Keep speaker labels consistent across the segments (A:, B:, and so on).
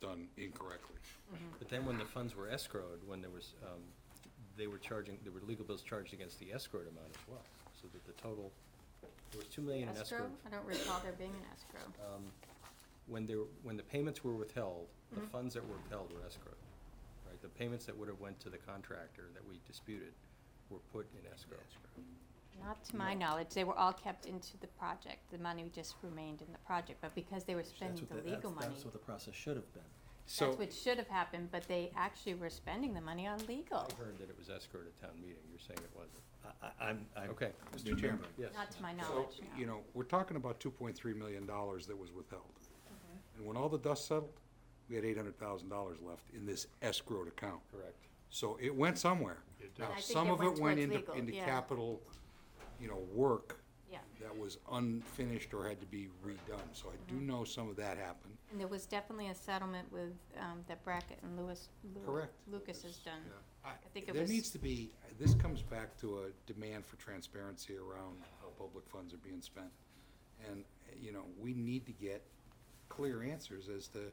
A: done incorrectly.
B: But then when the funds were escrowed, when there was, um, they were charging, there were legal bills charged against the escrowed amount as well. So that the total, there was two million in
C: Escrow?
B: escrow.
C: I don't recall there being an escrow.
B: Um, When there, when the payments were withheld, the
C: Mhm.
B: funds that were withheld were escrowed, right? The payments that would have went to the contractor that we disputed were put in escrow.
C: Not to my knowledge, they were all kept into the project. The money just remained in the project, but because they were spending the legal money,
D: That's what the process should have been.
C: that's
A: So,
C: what should have happened, but they actually were spending the money on legal.
B: I heard that it was escrowed at town meeting. You're saying it wasn't.
D: I, I, I'm, I'm.
B: Okay,
A: Mr. Chairman,
B: yes.
C: Not to my
A: so,
C: knowledge,
A: you
C: no.
A: know, we're talking about two point three million dollars that was withheld.
C: Mm-hmm.
A: And when all the dust settled, we had eight hundred thousand dollars left in this escrowed account.
B: Correct.
A: So it went somewhere. Now,
C: And I think
A: some
C: it
A: of it
C: went
A: went
C: towards
A: into,
C: legal,
A: into
C: yeah.
A: capital, you know, work
C: Yeah.
A: that was unfinished or had to be redone. So I
C: Mm-hmm.
A: do know some of that happened.
C: And there was definitely a settlement with, um, that Brackett and Lewis, Lew-
A: Correct.
C: Lucas has done.
A: I
C: think it
A: There
C: was-
A: needs to be, this comes back to a demand for transparency around how public funds are being spent. And, eh, you know, we need to get clear answers as to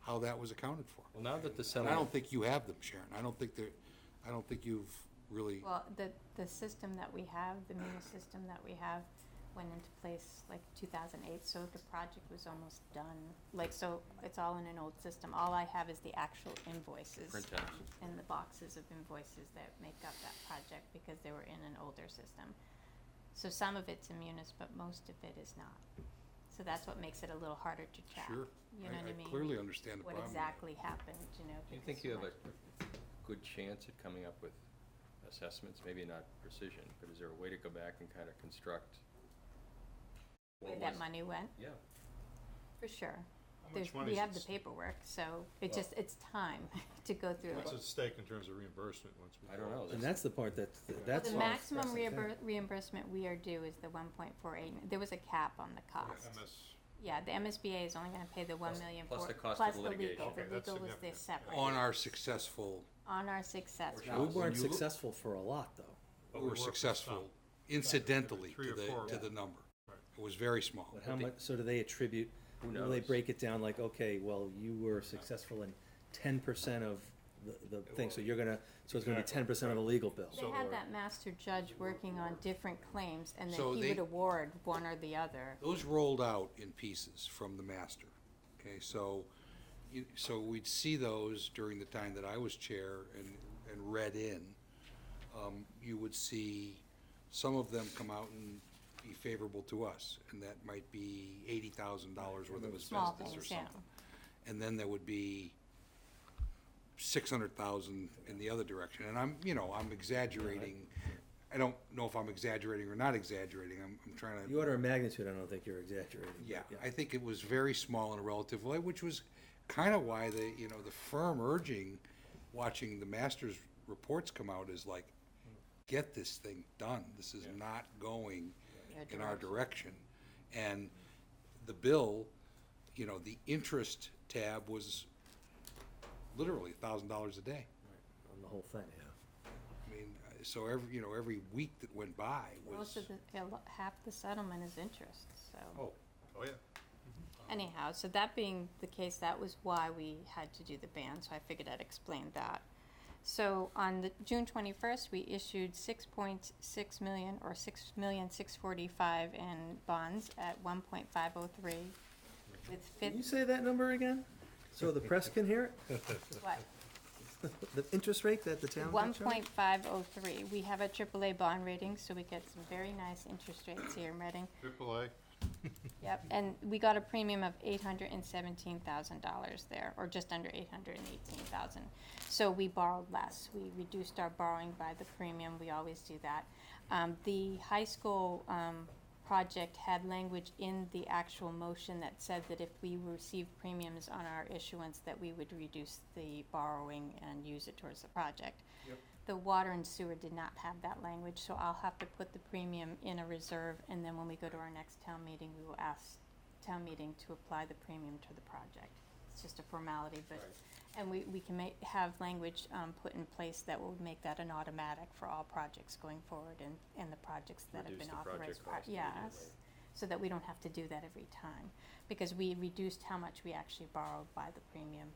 A: how that was accounted for.
B: Well, now that
A: And
B: the
A: I
B: settlement,
A: don't think you have them, Sharon. I don't think they're, I don't think you've really,
C: Well, the, the system that we have, the MUNIS system that we have went into place like two thousand eight, so the project was almost done. Like, so it's all in an old system. All I have is the actual invoices
B: printouts.
C: and the boxes of invoices that make up that project because they were in an older system. So some of it's in MUNIS, but most of it is not. So that's what makes it a little harder to track.
A: sure.
C: You know
A: I-
C: what I mean?
A: I clearly understand the
C: What
A: problem.
C: exactly happened, you know?
B: Do you
C: because
B: think you have
C: much-
B: a good chance at coming up with assessments, maybe not precision, but is there a way to go back and kind of construct? what
C: Where that
B: was-
C: money went?
B: Yeah,
C: For sure.
E: How
C: There's,
E: much money
C: we
E: is
C: have
E: at
C: the
E: s- Oh.
C: paperwork, so it
B: Well-
C: just, it's time to go through
E: What's
C: it.
E: at stake in terms of reimbursement once we?
B: I don't know.
D: And that's the part that,
C: But
D: that's.
C: The maximum reimbur- reimbursement we are due is the one point four eight, there was a cap on the cost.
E: MS,
C: Yeah, the MSBA is only gonna pay the one
B: Plus-
C: million
B: plus
C: four,
B: the cost of
C: plus the
B: litigation.
C: legal,
E: Okay,
C: the
E: that's
C: legal was the
E: significant.
C: separate.
A: On our successful,
C: On our success.
B: Or
D: Now, we
B: When
D: weren't
A: you look-
D: successful for a lot, though,
E: But
A: we
E: we
A: were
E: worked with
A: successful
E: some.
A: incidentally
E: Three
A: to
E: or
A: the,
E: four.
A: to the number.
E: Right.
A: It was very small.
D: but how much, so do they attribute?
B: Who
D: Will they
B: knows?
D: break it down like, okay, well, you were successful in ten percent of the, the thing, so you're gonna, so it's gonna be ten
E: Exactly,
D: percent of a legal bill.
C: They had that master judge working on different claims and then
A: So
C: he
A: they-
C: would award one or the other.
A: Those rolled out in pieces from the master, okay, so, you, so we'd see those during the time that I was chair and, and read in. Um, you would see some of them come out and be favorable to us, and that might be eighty thousand dollars worth of
C: Small
A: asbestos or
C: things, yeah.
A: something. And then there would be six hundred thousand in the other direction, and I'm, you know, I'm exaggerating. I don't know if I'm exaggerating or not exaggerating, I'm, I'm trying to.
D: The order of magnitude, I don't think you're exaggerating. but
A: Yeah, I think it was very small in a relative way, which was kind of why the, you know, the firm urging, watching the master's reports come out is like, get this thing done. This is not going in our direction. And the bill, you know, the interest tab was literally a thousand dollars a day.
D: On the whole thing, yeah.
A: I mean, uh, so every, you know, every week that went by was,
C: Most of the, a lo- half the settlement is interest, so.
A: oh,
E: oh, yeah.
C: Anyhow, so that being the case, that was why we had to do the ban, so I figured I'd explain that. So on the June twenty-first, we issued six point six million or six million six forty-five in bonds at one point five oh three with
D: Can you
C: fifth,
D: say that number again? So the press can hear it?
C: what?
D: The interest rate that the town.
C: One point five oh three. We have a AAA bond rating, so we get some very nice interest rates here in Reading.
E: Triple A,
C: Yep, and we got a premium of eight hundred and seventeen thousand dollars there, or just under eight hundred and eighteen thousand. So we borrowed less, we reduced our borrowing by the premium, we always do that. Um, the high school, um, project had language in the actual motion that said that if we received premiums on our issuance, that we would reduce the borrowing and use it towards the project. The water and sewer did not have that language, so I'll have to put the premium in a reserve, and then when we go to our next town meeting, we will ask town meeting to apply the premium to the project. It's just a formality, but, and we, we can make, have language, um, put in place that will make that an automatic for all projects going forward and, and the projects that have
B: Reduce
C: been
B: the project
C: authorized.
B: cost
C: Yes,
B: immediately.
C: so that we don't have to do that every time, because we reduced how much we actually borrowed by the premium